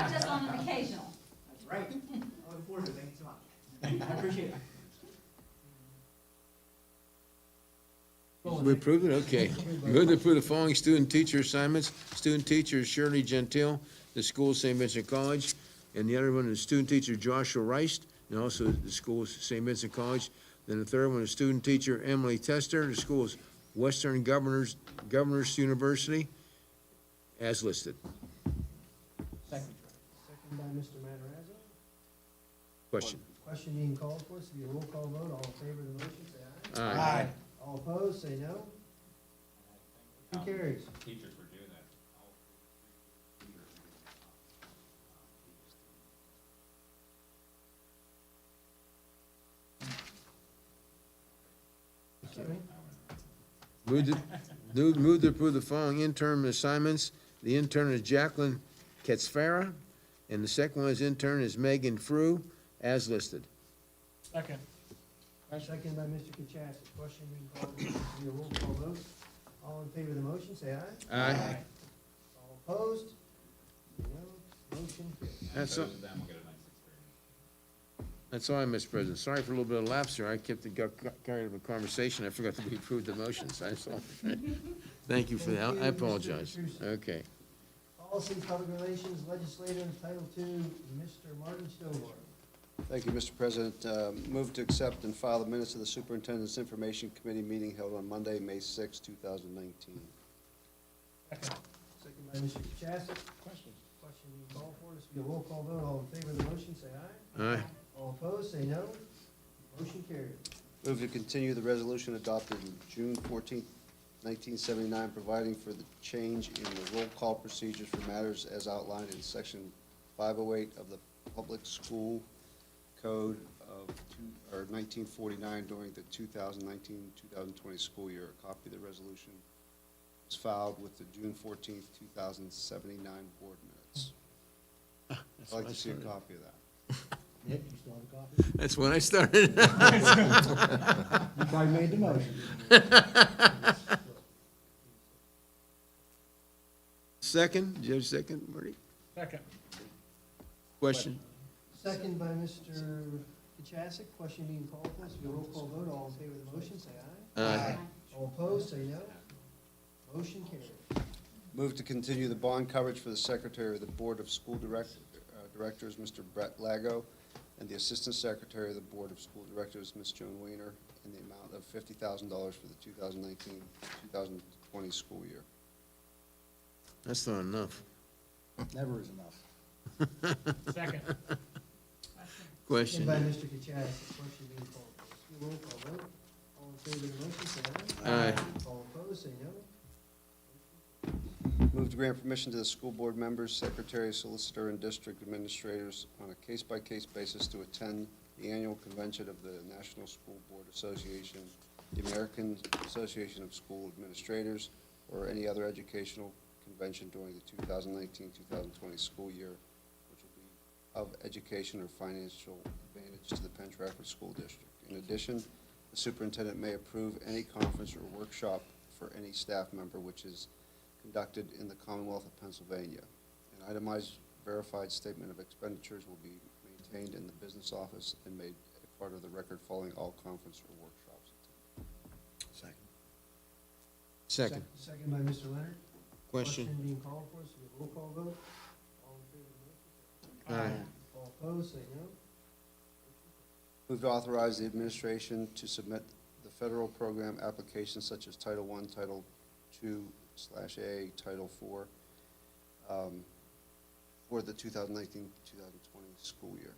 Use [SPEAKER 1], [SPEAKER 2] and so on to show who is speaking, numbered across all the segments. [SPEAKER 1] I appreciate it.
[SPEAKER 2] We approve it, okay. Move to approve the following student teacher assignments. Student teacher Shirley Gentile, the school St. Vincent College, and the other one is student teacher Joshua Rice, and also the school is St. Vincent College. Then the third one is student teacher Emily Tester, the school is Western Governors, Governors University, as listed.
[SPEAKER 1] Second.
[SPEAKER 3] Second by Mr. Matarazzo.
[SPEAKER 2] Question?
[SPEAKER 3] Question being called for, this will be a roll call vote, all in favor of the motion, say aye.
[SPEAKER 2] Aye.
[SPEAKER 3] All opposed, say no. Who carries?
[SPEAKER 4] Teachers were doing that.
[SPEAKER 3] Sorry.
[SPEAKER 2] Move to, move- move to approve the following interim assignments. The intern is Jacqueline Katsfara, and the second one is intern is Megan Frew, as listed.
[SPEAKER 1] Second.
[SPEAKER 3] Second by Mr. Kachasik. Question being called for, this will be a roll call vote, all in favor of the motion, say aye.
[SPEAKER 2] Aye.
[SPEAKER 3] All opposed, say no. Motion carries.
[SPEAKER 2] That's all,
[SPEAKER 4] Those of them will get a nice experience.
[SPEAKER 2] that's all, I, Mr. President. Sorry for a little bit of lapse here. I kept, it- got carried up a conversation. I forgot that we approved the motions. That's all. Thank you for that. I apologize. Okay.
[SPEAKER 3] Policy, Public Relations, Legislators, Title II, Mr. Martin Stovall.
[SPEAKER 5] Thank you, Mr. President. Uh, Move to accept and file the minutes of the Superintendent's Information Committee meeting held on Monday, May 6, 2019.
[SPEAKER 3] Second by Mr. Kachasik. Question. Question being called for, this will be a roll call vote, all in favor of the motion, say aye.
[SPEAKER 2] Aye.
[SPEAKER 3] All opposed, say no. Motion carries.
[SPEAKER 5] Move to continue the resolution adopted June 14, 1979, providing for the change in the roll call procedures for matters as outlined in Section 508 of the Public School Code of two- or 1949 during the 2019-2020 school year. A copy of the resolution is filed with the June 14, 2079 board minutes. I'd like to see a copy of that.
[SPEAKER 3] Nick, you still have a copy?
[SPEAKER 2] That's when I started.
[SPEAKER 3] You probably made the motion.
[SPEAKER 2] Second, do you have a second, Marty?
[SPEAKER 1] Second.
[SPEAKER 2] Question?
[SPEAKER 3] Second by Mr. Kachasik, question being called for, this will be a roll call vote, all in favor of the motion, say aye.
[SPEAKER 2] Aye.
[SPEAKER 3] All opposed, say no. Motion carries.
[SPEAKER 5] Move to continue the bond coverage for the Secretary of the Board of School Direct- uh, Directors, Mr. Brett Lago, and the Assistant Secretary of the Board of School Directors, Ms. Joan Weiner, in the amount of $50,000 for the 2019-2020 school year.
[SPEAKER 2] That's not enough.
[SPEAKER 3] Never is enough.
[SPEAKER 1] Second.
[SPEAKER 2] Question?
[SPEAKER 3] Second by Mr. Kachasik, question being called for, this will be a roll call vote, all in favor of the motion, say aye.
[SPEAKER 2] Aye.
[SPEAKER 3] All opposed, say no.
[SPEAKER 5] Move to grant permission to the school board members, secretary, solicitor, and district administrators on a case-by-case basis to attend the annual convention of the National School Board Association, the American Association of School Administrators, or any other educational convention during the 2019-2020 school year, which will be of education or financial advantage to the Penn Trafford School District. In addition, the superintendent may approve any conference or workshop for any staff member which is conducted in the Commonwealth of Pennsylvania. An itemized verified statement of expenditures will be maintained in the business office and made a part of the record following all conference or workshops.
[SPEAKER 2] Second.
[SPEAKER 3] Second by Mr. Leonard.
[SPEAKER 2] Question?
[SPEAKER 3] being called for, so we roll call vote. All in favor of the
[SPEAKER 2] Aye.
[SPEAKER 3] motion, say aye. All opposed, say no.
[SPEAKER 5] Move to authorize the administration to submit the federal program applications such as Title I, Title II slash A, Title IV, um, for the 2019-2020 school year.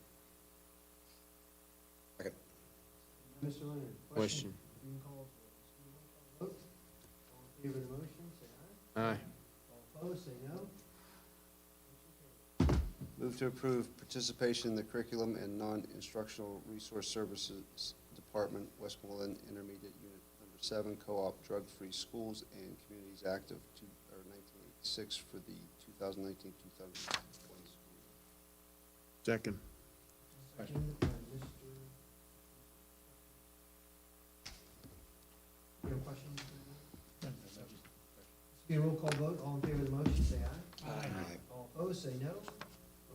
[SPEAKER 3] Mr. Leonard.
[SPEAKER 2] Question?
[SPEAKER 3] Being called for, so we roll call vote. All in favor of the motion, say aye.
[SPEAKER 2] Aye.
[SPEAKER 3] All opposed, say no.
[SPEAKER 5] Move to approve participation in the Curriculum and Non-Instructional Resource Services Department, Westmoreland Intermediate Unit Number Seven, Co-op Drug-Free Schools and Communities Act of two, or nineteen eighty-six for the 2019-2020 school year.
[SPEAKER 2] Second.
[SPEAKER 3] Second by